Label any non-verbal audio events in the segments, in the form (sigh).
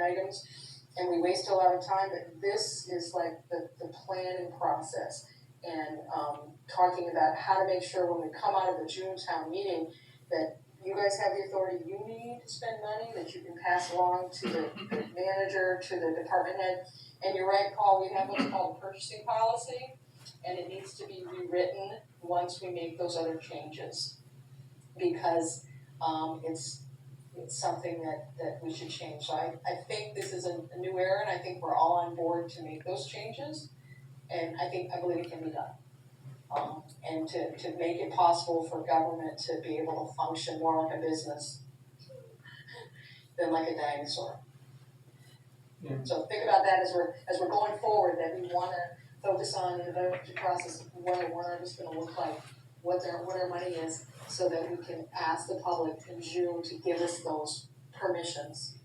items, and we waste a lot of time, but this is like the, the planning process. And, um, talking about how to make sure when we come out of the June town meeting, that you guys have the authority you need to spend money, that you can pass along to the the manager, to the department head. And you're right, Paul, we have what's called purchasing policy, and it needs to be rewritten once we make those other changes. Because, um, it's, it's something that, that we should change. So I, I think this is a, a new era, and I think we're all on board to make those changes. And I think, I believe it can be done. Um, and to, to make it possible for government to be able to function more like a business than like a dinosaur. Yeah. So think about that as we're, as we're going forward, that we wanna focus on the budget process, what our warrant is gonna look like, what their, what our money is, so that we can ask the public in June to give us those permissions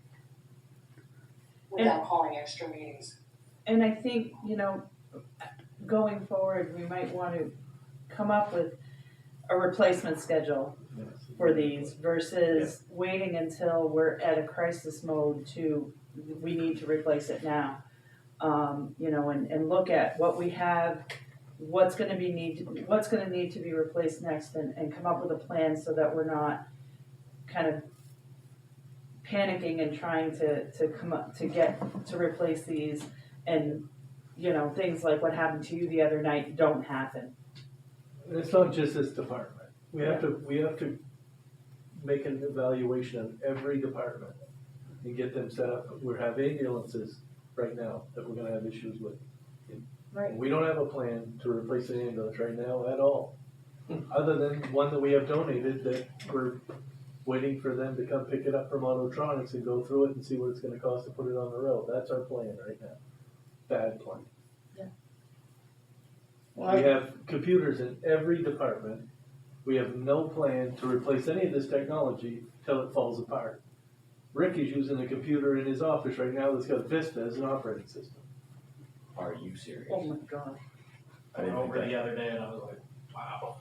without calling extra meetings. And I think, you know, going forward, we might want to come up with a replacement schedule for these versus waiting until we're at a crisis mode to, we need to replace it now. Um, you know, and, and look at what we have, what's gonna be need, what's gonna need to be replaced next and, and come up with a plan so that we're not kind of panicking and trying to, to come up, to get, to replace these and you know things like what happened to you the other night don't happen And it's not just this department. We have to, we have to make an evaluation of every department and get them set up. We have ambulances right now that we're gonna have issues with. Right. We don't have a plan to replace an ambulance right now at all, other than one that we have donated that we're waiting for them to come pick it up from Autotronics and go through it and see what it's gonna cost to put it on the road. That's our plan right now. Bad plan. We have computers in every department. We have no plan to replace any of this technology till it falls apart. Rick is using a computer in his office right now that's got Vista as an operating system. Are you serious? oh my god I didn't think over that- the other day and I was like, wow.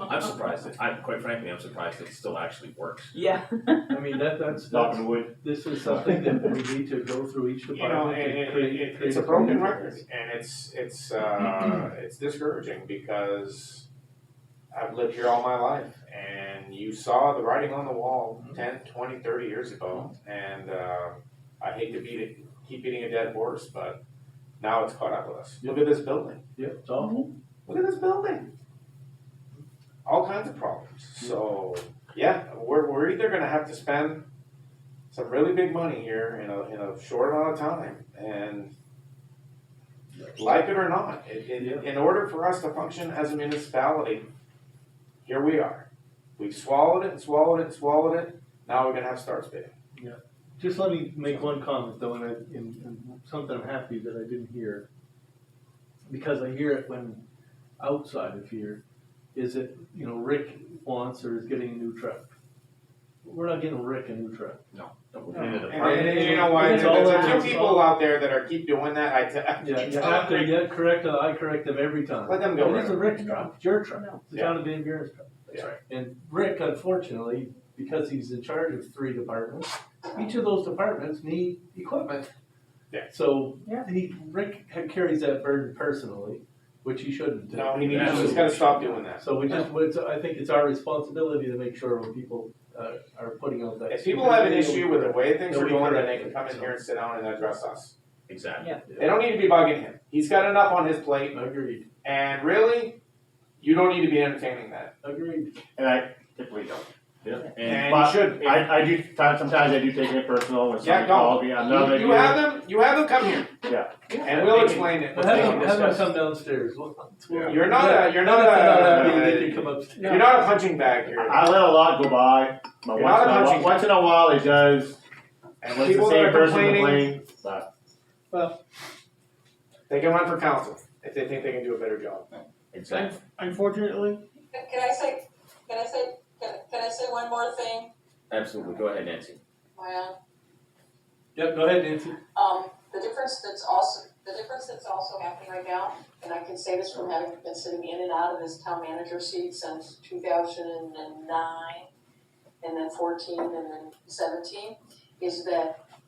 I'm surprised. It, I'm quite frankly, I'm surprised it still actually works. (laughs) yeah I mean, that, (laughs) that's, Knock that's, on wood. this is something that we need to go through each You know, department and and it, create. it, create it's a broken plan. record and it's, it's, uh, it's discouraging because I've lived here all my life and you saw the writing on the wall ten, twenty, thirty years ago. And, uh, I hate to beat it, keep beating a dead horse, but now it's caught up with us. Look at this building. Yep, it's awful. look at this building. All kinds of problems. So yeah, we're, we're either gonna have to spend some really big money here in a, in a short amount of time and like it or not, it, Yeah. in, in order for us to function as a municipality, here we are. We've swallowed it and swallowed it and swallowed it. Now we're gonna have start bidding. Just let me make one comment though, and I, and, and something I'm happy that I didn't hear. Because I hear it when outside of here, is that, you know, Rick wants or is getting a new truck. We're not getting Rick a new truck. In the And, department. and- and you know why? It's There's all a about- few people out there that are keep doing that. I tell, Yeah, you have to, you correct them, I correct them every time. Let them go, It is a Rick truck, it's your truck, No. it's the town of Van Buren's truck. That's right. And Rick, unfortunately, because he's in charge of three departments, each of those departments need equipment. Yeah. So, Yeah. he, Rick ha- carries that burden personally, which he shouldn't. do. No, he needs, he's gotta stop doing that. So we just, it's, I think it's our responsibility to make sure when people, uh, are putting out that. If people have an issue with the way things are Nobody going, then corrected they can come in it, here and sit down and address us. Exactly. They don't need to be bugging him. He's got enough on his plate, Agreed, and really, you don't need to be entertaining that. agreed. And I typically don't. And And you but should. I, I do, ti- sometimes I do take it personal when Yeah, somebody don't. calls me, I'm not You, like. you have them, you have them come here. Yeah. And we'll explain it. Have We'll them, have them discuss. come downstairs. We'll- Yeah. You're not a, you're not Not a, that They can come upstairs. you're not a punching bag here. I let a lot go by, but You're once not in a while, punching. once in a while it does, And when it's the people that same are person complaining, complaining, but they can run for council if they think they can do a better job. Exactly. Unfortunately, Can, can I say, can I say, can, can I say one more thing, Absolutely. Go ahead, Nancy. Maya? Yep, go ahead, Nancy. Um, the difference that's also, the difference that's also happening right now, and I can say this from having been sitting in and out of this town manager seat since two thousand and nine, and then fourteen, and then seventeen, is that